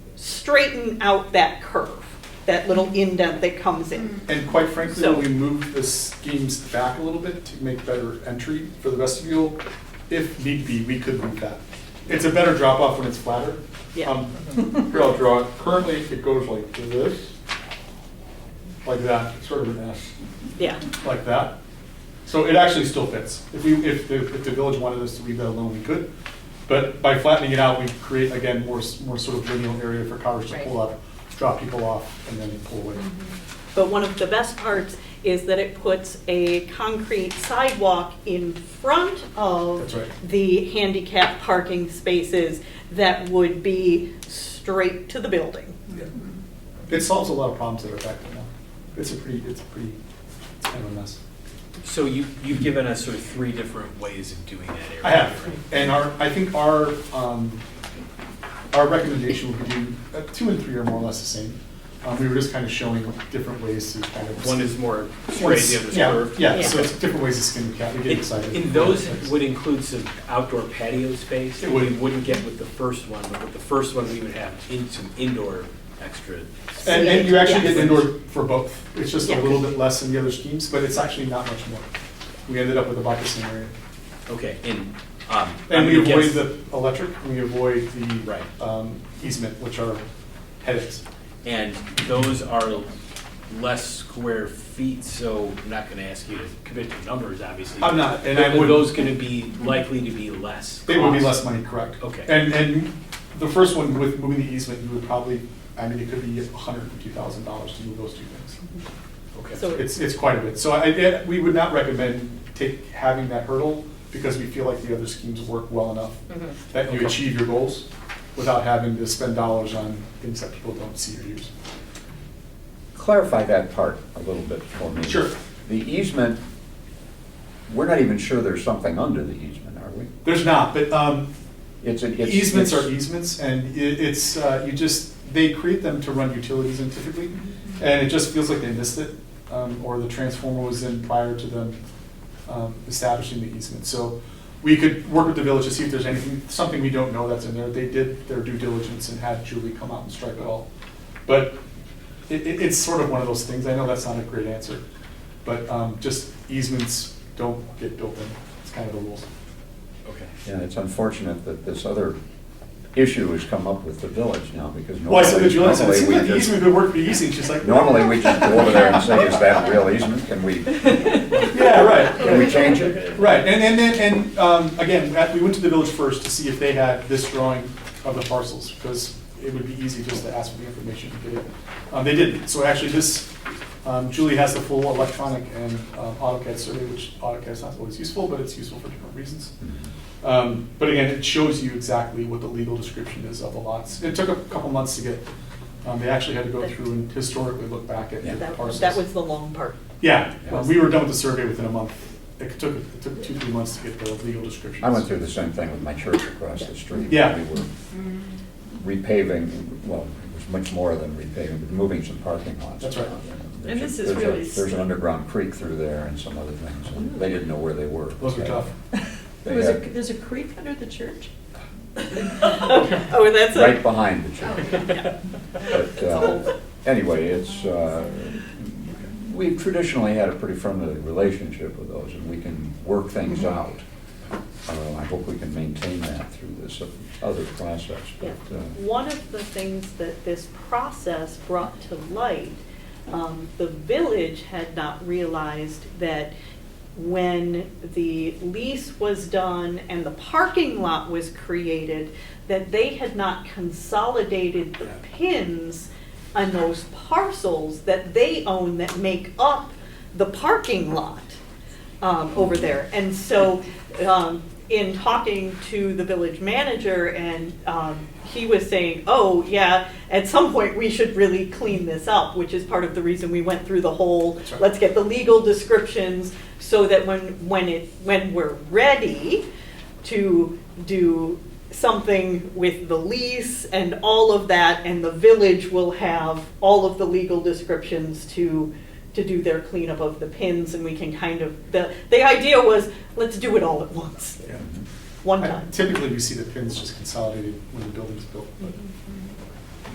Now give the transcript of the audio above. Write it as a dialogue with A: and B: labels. A: straighten out that curve, that little indent that comes in.
B: And quite frankly,
A: So-
B: when we moved the schemes back a little bit to make better entry for the vestibule, if need be, we could move that. It's a better drop off when it's flatter.
A: Yeah.
B: Um, Here, I'll draw it. Currently, it goes like this, like that, sort of an S,
A: Yeah,
B: like that. So it actually still fits. If we, if the, if the village wanted us to leave that alone, we could. But by flattening it out, we create, again, more, s- more sort of lineal area for cars to pull up, drop people off, and then pull away.
A: Mm-hmm. but one of the best parts is that it puts a concrete sidewalk in front of
B: That's right.
A: the handicap parking spaces that would be straight to the building.
B: Yeah. It solves a lot of problems that are back there now. It's a pretty, it's a pretty, it's kind of a mess.
C: So you, you've given us sort of three different ways of doing that area.
B: I have, and our, I think our, um, our recommendation would be do, uh, two and three are more or less the same. Um, we were just kind of showing different ways to kind of.
C: One is more
B: One's-
C: straight, the other's
B: yeah,
C: curved.
B: Yeah,
A: Yeah.
B: so it's different ways to skin the cat, we get excited.
C: And and those would include some outdoor patio space.
B: It would.
C: We wouldn't get with the first one, but with the first one, we would have in some indoor extra.
B: And, and you actually get
A: Yeah.
B: indoor for both, it's just a
A: Yeah.
B: little bit less than the other schemes, but it's actually not much more. We ended up with about the same area.
C: Okay, and, um.
B: And
C: I'm
B: we
C: gonna guess-
B: avoid the electric, we avoid the
C: Right.
B: um, easement, which are headaches.
C: And those are less square feet, so I'm not gonna ask you to commit to numbers, obviously.
B: I'm not, and I
C: But are
B: wouldn't.
C: Those gonna be likely to be less.
B: They would be
C: cost?
B: less money, correct.
C: Okay.
B: And, and the first one with moving the easement, you would probably, I mean, it could be hundred and fifty thousand dollars to move those two things.
C: Okay.
A: So
B: It's, it's quite a bit. So I, I- we would not recommend take, having that hurdle because we feel like the other schemes work well enough
A: Mm-hmm.
B: that you
C: Okay.
B: achieve your goals without having to spend dollars on things that people don't see or use.
D: Clarify that part a little bit for me.
B: Sure.
D: The easement, we're not even sure there's something under the easement, are we?
B: There's not, but, um,
D: It's a- it's-
B: Easements
D: it's-
B: are easements, and i- it's, uh, you just, they create them to run utilities in typically, and it just feels like they missed it, um, or the transformer was in prior to them um, establishing the easement. So we could work with the village to see if there's anything, something we don't know that's in there. They did their due diligence and had Julie come out and strike it all. But it, it, it's sort of one of those things, I know that's not a great answer, but um, just easements don't get built in, it's kind of the rules.
C: Okay.
D: Yeah, it's unfortunate that this other issue has come up with the village now because normally.
B: Well, I said to Julie, I said, it
D: normally
B: seems
D: we
B: like the
D: just-
B: easement would work be easy, and she's like.
D: Normally, we just go over there and say, is that a real easement? Can we,
B: Yeah,
D: can we
B: right.
D: change it?
B: Right, and, and then, and, um, again, at- we went to the village first to see if they had this drawing of the parcels, because it would be easy just to ask for the information and get it. Um, they didn't, so actually this, um, Julie has the full electronic and um, AutoCAD survey, which AutoCAD's not always useful, but it's useful for different reasons.
D: Mm-hmm.
B: Um, But again, it shows you exactly what the legal description is of the lots. It took a couple months to get, um, they actually had to go through and historically look back at
D: Yeah.
B: the
A: that
B: parcels.
A: that was the long part.
B: Yeah,
D: Yeah.
B: well, we were done with the survey within a month. It took, it took two, three months to get the legal descriptions.
D: I went through the same thing with my church across the street.
B: Yeah.
D: We were repaving, well, it was much more than repaving, but moving some parking lots.
B: That's right.
D: There's
E: this
D: a-
E: is
D: there's a-
E: really-
D: There's an underground creek through there and some other things, and they didn't know where they were.
B: Those were tough.
D: They
E: There was a,
D: had-
E: there's a creek under the church?
A: Oh, and that's a.
D: Right behind the church. But, uh,
A: whole-
D: anyway, it's, uh, we've traditionally had a pretty friendly relationship with those, and we can work things
E: Mm-hmm.
D: out. Uh, I hope we can maintain that through this other process,
A: Yeah.
D: but, uh,
A: One of the things that this process brought to light, um, the village had not realized that when the lease was done and the parking lot was created, that they had not consolidated the pins on those parcels that they own that make up the parking lot um, over there. And so, um, in talking to the village manager, and um, he was saying, oh, yeah, at some point, we should really clean this up, which is part of the reason we went through the whole,
B: That's right.
A: let's get the legal descriptions, so that when, when it, when we're ready to do something with the lease and all of that, and the village will have all of the legal descriptions to, to do their cleanup of the pins, and we can kind of, the, the idea was, let's do it all at once,
B: Yeah.
A: one
B: I-
A: time. Mm-hmm.
B: Typically, we see the pins just consolidated when the building's built, but